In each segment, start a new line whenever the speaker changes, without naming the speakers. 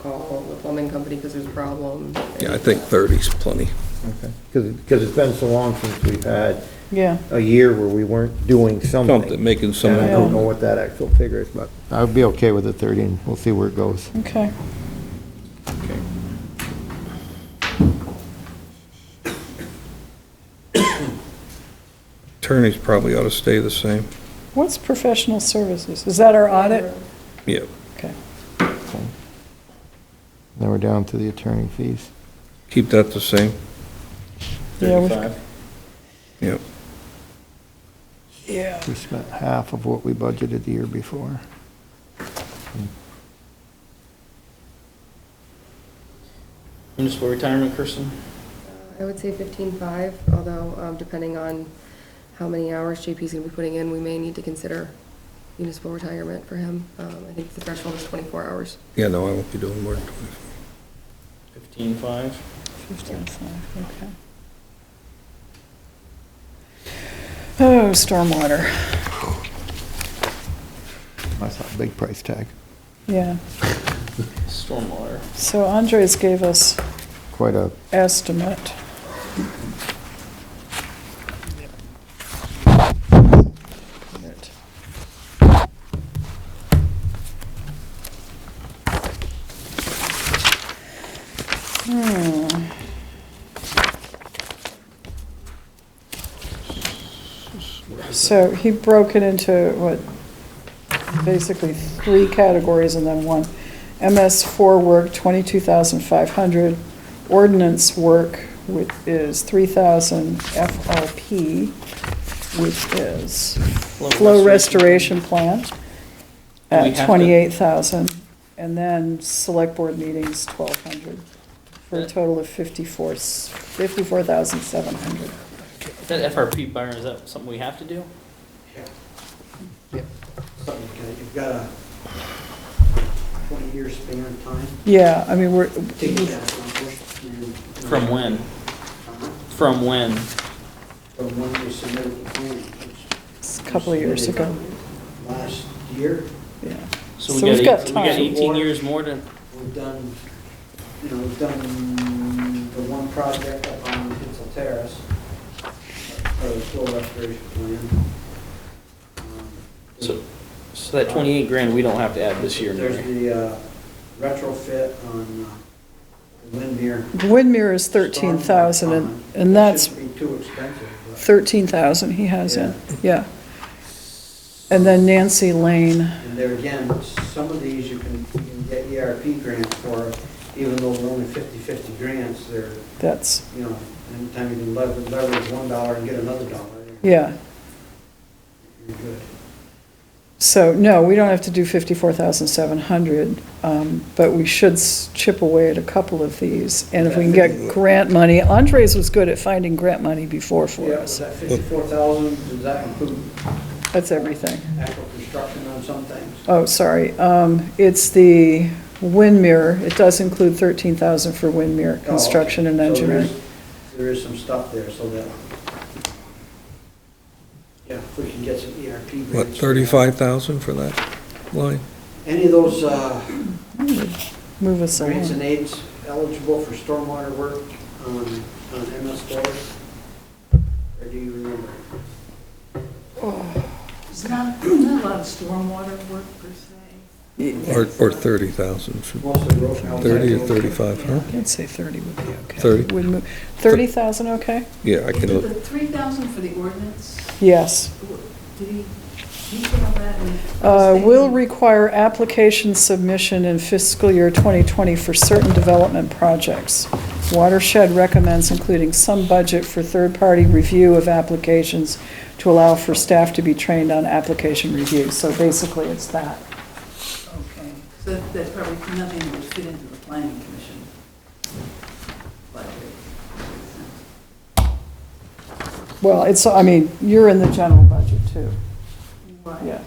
call the plumbing company because there's a problem.
Yeah, I think 30's plenty.
Okay. Because, because it's been so long since we've had
Yeah,
a year where we weren't doing something.
Something, making some,
And I
yeah,
don't know what that actual figure is, but I would be okay with the 30, and we'll see where it goes.
okay.
attorneys probably ought to stay the same.
What's professional services? Is that our audit?
Yeah,
Okay.
Now we're down to the attorney fees.
keep that the same,
Yeah, we-
yeah.
Yeah.
We spent half of what we budgeted the year before.
Municipal retirement, Kirsten?
I would say fifteen-five, although um, depending on how many hours JP's gonna be putting in, we may need to consider municipal retirement for him. Um, I think the threshold is twenty-four hours.
Yeah, no, I won't be doing more than 25.
Fifteen-five?
Fifteen-five, okay. Oh, stormwater,
That's a big price tag,
yeah.
Stormwater.
So Andres gave us
quite a
estimate. Hmm. So he broke it into what, basically three categories and then one. MS four work, twenty-two thousand five hundred. Ordinance work, which is three thousand FRP, which is flow restoration plan
Do we have
at
to-
twenty-eight thousand. And then select board meetings, twelve hundred, for a total of fifty-four, fifty-four thousand seven hundred.
That FRP, Byron, is that something we have to do?
something, you can- you've got a twenty-year span of time
Yeah, I mean, we're,
to get that accomplished. and-
From when? From when?
From when you submitted the plan. which
it's a couple of years ago,
Last year,
yeah.
So we
So we've got
got, eight- we got
time.
eighteen years more to,
we've done, you know, we've done the one project up on Pitzel Terrace, or the soil restoration plan. Um,
so, so that twenty-eight grand, we don't have to add this year,
There's
Mary.
the uh, retrofit on uh, Windmere.
Windmere is thirteen thousand, and, and that's
Shouldn't be too expensive, but-
thirteen thousand he has in, yeah. And then Nancy Lane,
And there again, some of these you can, you can get ERP grants for, even though they're only 50-50 grants, they're,
that's,
you know, anytime you can leverage, leverage one dollar and get another dollar,
yeah.
you're good.
So, no, we don't have to do fifty-four thousand seven hundred, um, but we should s- chip away at a couple of these. And if we can get grant money, Andres was good at finding grant money before for
Yeah, was
us.
that 54,000, does that include
That's everything.
actual construction on some things?
Oh, sorry, um, it's the Windmere, it does include thirteen thousand for Windmere
Oh,
construction and
okay. So there
engineering.
is- There is some stuff there, so that, yeah, if we can get some ERP grants.
What, 35,000 for that line?
Any of those uh,
Move us along.
grants and aids eligible for stormwater work on, on MS floors? Or do you remember?
Is not, not a lot of stormwater work per se.
Or, or 30,000? for-
Mostly road. outside
30 or
road.
35, huh?
I'd say 30 would be okay.
30?
Would mo- 30,000, okay?
Yeah, I can
Did
look.
the three thousand for the ordinance,
Yes.
did he detail that? in-
Uh, Will require application submission in fiscal year 2020 for certain development projects. Watershed recommends including some budget for third-party review of applications to allow for staff to be trained on application review. So basically, it's that.
Okay, so that's probably nothing that would fit into the planning commission. budget.
Well, it's, I mean, you're in the general budget too,
Right,
yeah.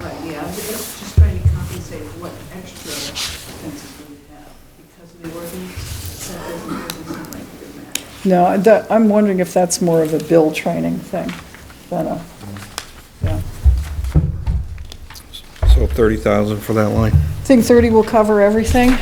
Right, yeah, I'm just just trying to compensate what extra expenses we have because of the ordinance, that doesn't, doesn't seem like it would matter.
No, I- that- I'm wondering if that's more of a bill training thing than a, yeah.
So 30,000 for that line?
Think 30 will cover everything?